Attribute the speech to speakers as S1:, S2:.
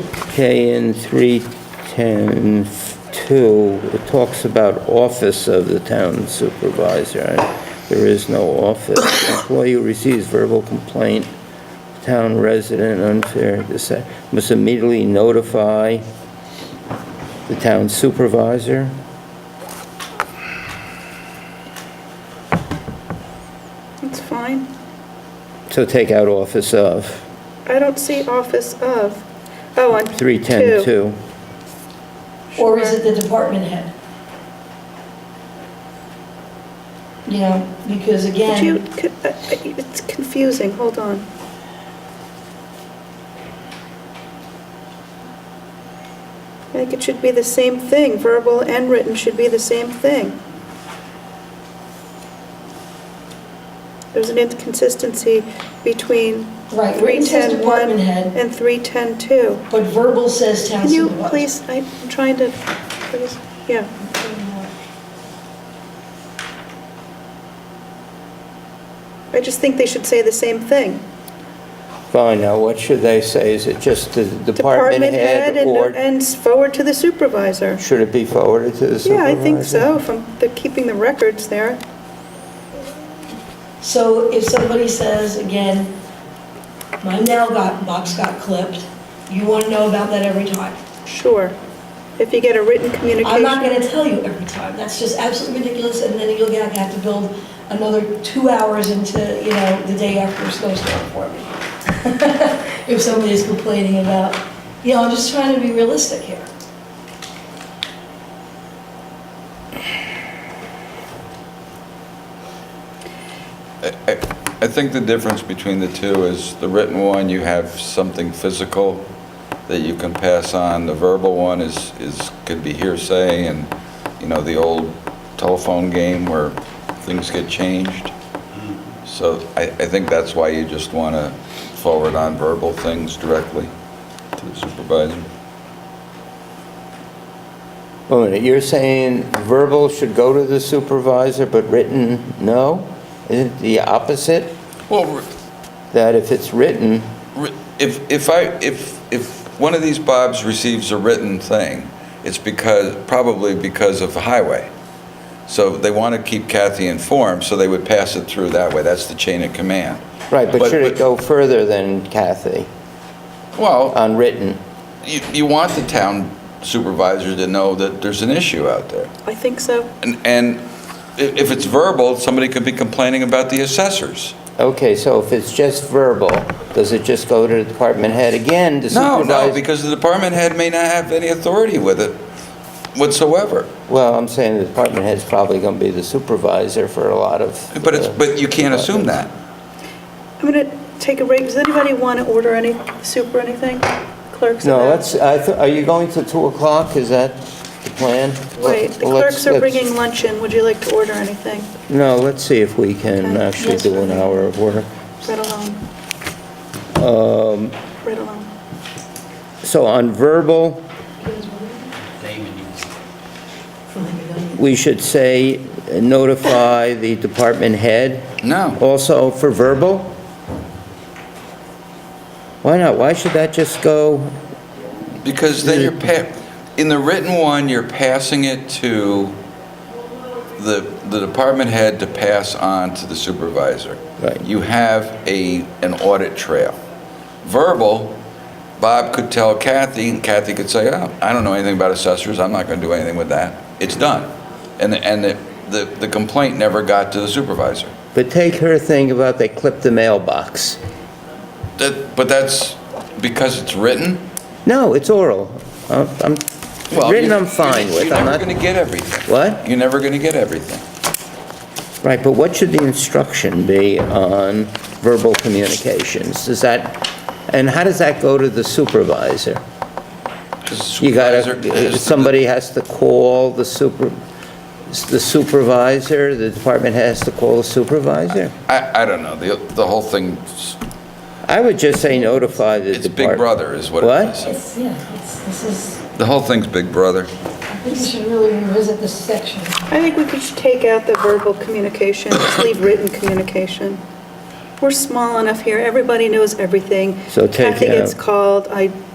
S1: KN 310-2, it talks about office of the town supervisor, and there is no office. Employee who receives verbal complaint, town resident unfair, disa- must immediately notify the town supervisor.
S2: It's fine.
S1: So take out office of,
S2: I don't see office of. Oh, on two.
S1: 310-2.
S3: Or is
S2: Sure.
S3: it the department head? You know, because
S2: Could you,
S3: again,
S2: could- uh, uh, it's confusing, hold on. I think it should be the same thing, verbal and written should be the same thing. There's an inconsistency between
S3: right, where it says
S2: 310-1
S3: department head,
S2: and 310-2.
S3: but verbal says town
S2: Can you
S3: supervisor.
S2: please, I'm trying to, please, yeah. I just think they should say the same thing.
S1: Fine, now what should they say? Is it just the department head
S2: and-
S1: or
S2: And forward to the supervisor.
S1: should it be forwarded to the
S2: Yeah,
S1: supervisor?
S2: I think so, from the, keeping the records there.
S3: So if somebody says, again, my mail got, box got clipped, you want to know about that every time.
S2: Sure. If you get a written
S3: I'm
S2: communication.
S3: not going to tell you every time, that's just absolutely ridiculous, and then you'll gonna have to build another two hours into, you know, the day after a snowstorm for me. If somebody's complaining about, you know, I'm just trying to be realistic here.
S4: I think the difference between the two is the written one, you have something physical that you can pass on. The verbal one is, is, could be hearsay and, you know, the old telephone game where things get changed. So I, I think that's why you just want to forward on verbal things directly to the supervisor.
S1: Wait a minute, you're saying verbal should go to the supervisor, but written, no? Isn't it the opposite?
S4: Well,
S1: That if it's written,
S4: Re- If, if I, if, if one of these Bobs receives a written thing, it's because, probably because of the highway. So they want to keep Kathy informed, so they would pass it through that way. That's the chain of command.
S1: right, but
S4: But-
S1: should it
S4: but-
S1: go further than Kathy
S4: Well,
S1: on written?
S4: you, you want the town supervisor to know that there's an issue out there.
S2: I think so.
S4: And, and i- if it's verbal, somebody could be complaining about the assessors.
S1: Okay, so if it's just verbal, does it just go to the department head again, the
S4: No,
S1: supervisor?
S4: no, because the department head may not have any authority with it whatsoever.
S1: Well, I'm saying the department head's probably going to be the supervisor for a lot of...
S4: But it's,
S1: uh,
S4: but you can't assume that.
S2: I'm going to take a break. Does anybody want to order any soup or anything? Clerks? and
S1: No,
S2: that?
S1: let's, I th- are you going to 2 o'clock? Is that the plan?
S2: Wait, the
S1: Well, let's-
S2: clerks are
S1: let's-
S2: bringing luncheon. Would you like to order anything?
S1: No, let's see if we can
S2: Okay.
S1: actually
S2: Yes.
S1: do an hour of work.
S2: Right along. Um.
S1: Um,
S2: Right along.
S1: So on verbal, we should say uh, notify the department head.
S4: No.
S1: Also for verbal? Why not? Why should that just go,
S4: Because then you're pa, in the written one, you're passing it to the, the department head to pass on to the supervisor.
S1: Right.
S4: You have a, an audit trail. Verbal, Bob could tell Kathy, and Kathy could say, oh, I don't know anything about assessors, I'm not gonna do anything with that. It's done. And, the- and the- the, the complaint never got to the supervisor.
S1: but take her thing about they clipped the mailbox?
S4: That, but that's because it's written?
S1: No, it's oral. I'm, I'm-
S4: Well,
S1: written
S4: you-
S1: I'm fine with. I'm
S4: You're never
S1: not,
S4: gonna get everything.
S1: what?
S4: You're never gonna get everything.
S1: Right, but what should the instruction be on verbal communications? Does that, and how does that go to the supervisor? You
S4: uh,
S1: gotta, uh, somebody has to call the super, the supervisor, the department has to call the supervisor?
S4: I, I don't know, the, the whole thing,
S1: I would just say notify the
S4: it's
S1: department.
S4: Big Brother is what
S1: What?
S4: it is.
S3: It's, yeah, it's, this is,
S4: The whole thing's Big
S3: I
S4: Brother.
S3: think we should really revisit this section.
S2: I think we could just take out the verbal communication, just leave written communication. We're small enough here, everybody knows everything.
S1: So take
S2: Kathy gets
S1: out-
S2: called, I